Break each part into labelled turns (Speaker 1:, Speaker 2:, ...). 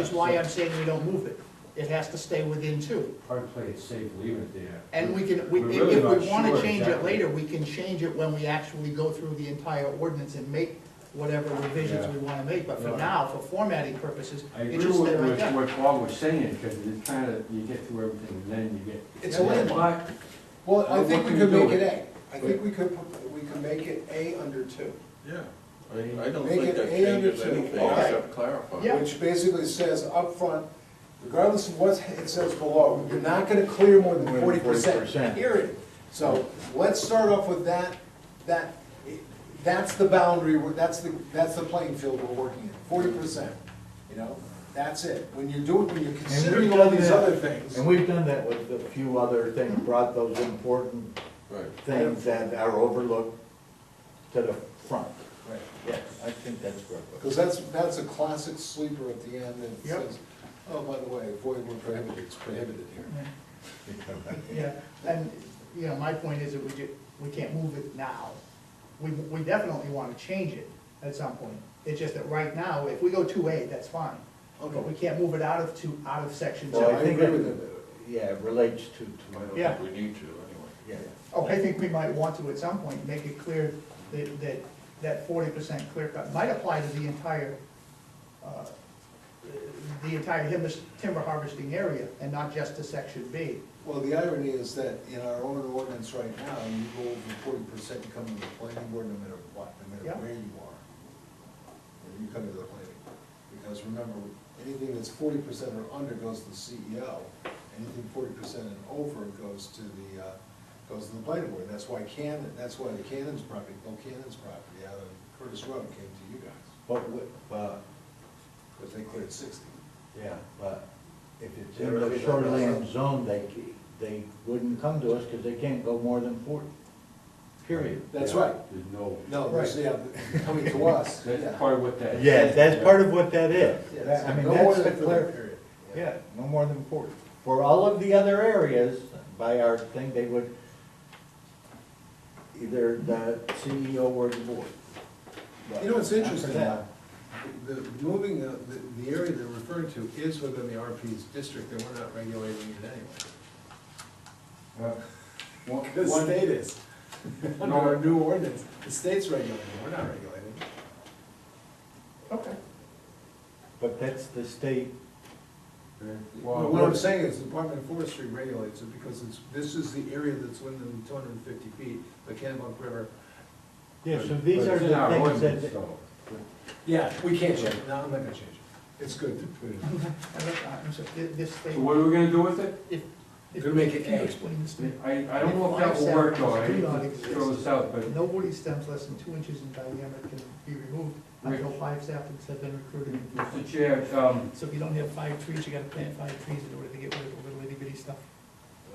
Speaker 1: That's why I'm saying we don't move it. It has to stay within two.
Speaker 2: Probably play it safe, leave it there.
Speaker 1: And we can, we-
Speaker 2: We're
Speaker 1: if
Speaker 2: really
Speaker 1: if we
Speaker 2: not
Speaker 1: want to
Speaker 2: sure
Speaker 1: change it
Speaker 2: exactly.
Speaker 1: later, we can change it when we actually go through the entire ordinance and make whatever revisions we want to make. But for
Speaker 2: Right.
Speaker 1: now, for formatting purposes,
Speaker 2: I
Speaker 1: it
Speaker 2: agree
Speaker 1: just
Speaker 2: with
Speaker 1: stay right
Speaker 2: what-
Speaker 1: there.
Speaker 2: what Bob was saying, because it kind of, you get through everything, and then you get.
Speaker 3: It's a landmark.
Speaker 2: But-
Speaker 3: Well, I
Speaker 2: Well,
Speaker 3: think
Speaker 2: what
Speaker 3: we
Speaker 2: can
Speaker 3: could
Speaker 2: you
Speaker 3: make
Speaker 2: do?
Speaker 3: it A. I think we could, put- we could make it A under two,
Speaker 4: Yeah, I, I don't
Speaker 3: Make
Speaker 4: think
Speaker 3: it
Speaker 4: that
Speaker 3: A under
Speaker 4: changes
Speaker 3: two.
Speaker 4: anything
Speaker 1: Okay.
Speaker 4: except clarify.
Speaker 1: Yeah.
Speaker 3: which basically says upfront, regardless of what it says below, you're not gonna clear more than forty percent, period. So let's start off with that, that, that's the boundary, we're- that's the, that's the playing field we're working in, forty percent, you know? That's it. When you're doing, when you're considering all
Speaker 5: done
Speaker 3: these
Speaker 5: that.
Speaker 3: other things.
Speaker 5: And we've done that with a few other things, brought those important
Speaker 4: Right.
Speaker 5: things that are overlooked to the front.
Speaker 3: Right.
Speaker 5: Yes, I think that's correct.
Speaker 3: Because that's, that's a classic sleeper at the end that
Speaker 1: Yep.
Speaker 3: says, oh, by the way, void where prohibited, it's prohibited here.
Speaker 1: Yeah, and, you know, my point is that we ju, we can't move it now. We, we definitely want to change it at some point. It's just that right now, if we go two A, that's fine. But we can't move it out of two, out of section two.
Speaker 5: Well,
Speaker 3: I
Speaker 5: I think
Speaker 3: agree
Speaker 5: that-
Speaker 3: with
Speaker 5: Yeah, it relates to,
Speaker 4: I
Speaker 5: to,
Speaker 4: don't
Speaker 1: Yeah.
Speaker 4: think we need to anyway.
Speaker 5: yeah.
Speaker 1: Oh, I think we might want to at some point make it clear that, that, that forty percent clear cut might apply to the entire, uh, the entire timber- timber harvesting area and not just to section B.
Speaker 3: Well, the irony is that in our own ordinance right now, you go over forty percent, you come to the planning board no matter what, no
Speaker 1: Yeah.
Speaker 3: matter where you are. Or You come to the planning, board. because remember, anything that's forty percent or under goes to the CEO, anything forty percent and over goes to the, uh, goes to the planning board. That's why Cannon, that's why the Cannon's property, Bill Cannon's property out on Curtis Road came to you guys,
Speaker 5: But, wi- but,
Speaker 3: because they cleared sixty.
Speaker 5: yeah, but if it's in the shoreline zone, they, ca- they wouldn't come to us because they can't go more than forty, period.
Speaker 3: That's
Speaker 2: Yeah,
Speaker 3: right.
Speaker 2: There's no,
Speaker 3: No, there's- yeah, coming to us,
Speaker 2: that's
Speaker 3: yeah.
Speaker 2: part of what that.
Speaker 5: Yeah, that's part of what that is.
Speaker 3: Yeah,
Speaker 5: That- I mean,
Speaker 3: no more
Speaker 5: that's the
Speaker 3: than
Speaker 5: clear.
Speaker 3: three, period.
Speaker 5: Yeah, no more than forty. For all of the other areas, by our thing, they would, either the CEO or the board.
Speaker 3: You know, what's interesting,
Speaker 5: After that,
Speaker 3: the, moving, the, the area they're referring to is within the RP's district, and we're not regulating it anyway.
Speaker 2: One,
Speaker 3: The
Speaker 2: one-
Speaker 3: state is, under our new ordinance, the state's regulating, it, we're not regulating. it.
Speaker 1: Okay.
Speaker 5: But that's the state,
Speaker 3: Well,
Speaker 2: well,
Speaker 3: what I'm saying is, the Department of Forestry regulates it, because it's, this is the area that's within two hundred and fifty feet, the Kennebunk River.
Speaker 5: yeah, so
Speaker 2: but
Speaker 5: these are
Speaker 2: it's in
Speaker 5: the
Speaker 2: our
Speaker 5: things
Speaker 2: ordinance,
Speaker 5: that,
Speaker 2: so.
Speaker 3: Yeah, we can't change it, no, I'm not gonna change it, it's good to put it.
Speaker 1: I'm sorry, thi- this
Speaker 2: So
Speaker 1: thing.
Speaker 2: what are we gonna do with it?
Speaker 1: if-
Speaker 3: Gonna make it
Speaker 1: if you
Speaker 3: A.
Speaker 1: Explain this to me.
Speaker 2: I, I don't know if
Speaker 1: If
Speaker 2: that will
Speaker 1: livestock
Speaker 2: work, though, I
Speaker 1: do
Speaker 2: hate
Speaker 1: not
Speaker 2: to
Speaker 1: exist,
Speaker 2: throw this out, but
Speaker 1: No woody stems less than two inches in diameter can be removed until five saplings have been recruited.
Speaker 2: Mr. Chair, um,
Speaker 1: So if you don't have five trees, you gotta plant five trees in order to get rid of the little itty bitty stuff.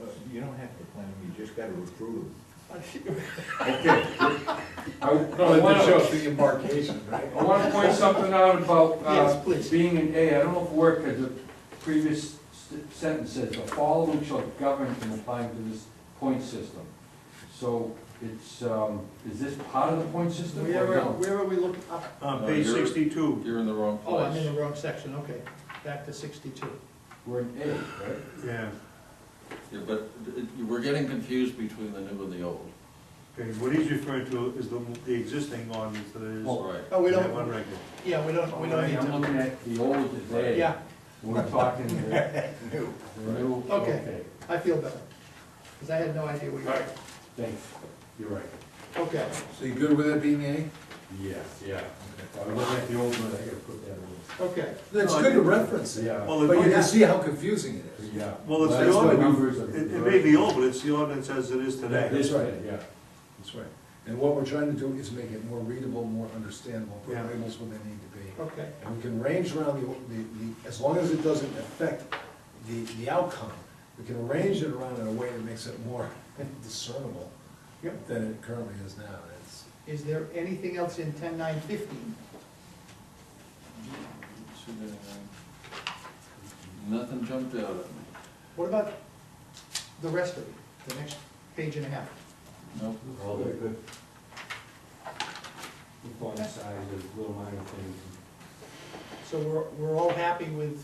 Speaker 5: uh, you don't have to plan, them, you just gotta approve them.
Speaker 2: okay. I I
Speaker 3: show
Speaker 2: wanna,
Speaker 3: us the embarkation, right?
Speaker 2: I wanna point something out about,
Speaker 1: Yes,
Speaker 2: uh,
Speaker 1: please.
Speaker 2: being an A, I don't know if it worked, because the previous s- sentence says, the following shall govern in applying to this point system. So it's, um, is this part of the point system or
Speaker 1: Where,
Speaker 2: no?
Speaker 1: where are we looking up?
Speaker 6: On
Speaker 4: No,
Speaker 6: page
Speaker 4: Uh, you're-
Speaker 6: sixty-two,
Speaker 4: You're in the wrong
Speaker 1: Oh, I'm in
Speaker 4: place.
Speaker 1: the wrong section, okay. Back to sixty-two.
Speaker 2: We're in A, right?
Speaker 6: yeah,
Speaker 4: Yeah, but it- you we're getting confused between the new and the old.
Speaker 6: okay, what he's referring to is the, the existing ordinance that is.
Speaker 2: Oh,
Speaker 4: Right.
Speaker 1: Oh, we
Speaker 6: that
Speaker 1: don't,
Speaker 6: One regular.
Speaker 1: yeah, we don't, we don't need
Speaker 2: I'm
Speaker 1: to.
Speaker 2: looking at the old is A.
Speaker 1: Yeah,
Speaker 2: We're talking the the new.
Speaker 1: Okay. I feel better. Because I had no idea where you were.
Speaker 2: Thanks, you're right.
Speaker 1: Okay,
Speaker 3: So you good with it being A?
Speaker 2: Yes, yeah. I was looking at the old one, I gotta put that in.
Speaker 1: okay.
Speaker 3: It's good to reference it,
Speaker 2: Yeah.
Speaker 6: Well,
Speaker 3: but
Speaker 6: it-
Speaker 3: you can see how confusing it is.
Speaker 2: Yeah.
Speaker 6: Well, it's
Speaker 3: That's
Speaker 6: the
Speaker 3: what
Speaker 6: ordinance,
Speaker 2: numbers of-
Speaker 6: it, it may be old, but it's the ordinance as it is today.
Speaker 2: This way, yeah.
Speaker 3: That's right. And what we're trying to do is make it more readable, more understandable, put
Speaker 6: Yeah.
Speaker 3: labels where they need to be.
Speaker 1: Okay,
Speaker 3: And we can range around the, the, the, as long as it doesn't affect the, the outcome, we can arrange it around in a way that makes it more discernible
Speaker 1: Yep.
Speaker 3: than it currently is now. It's,
Speaker 1: is there anything else in ten nine fifteen?
Speaker 4: Nothing jumped out at me.
Speaker 1: What about the rest of it, the next page and a half?
Speaker 4: Nope.
Speaker 2: All the good. The font size, the little minor things.
Speaker 1: So we're, we're all happy with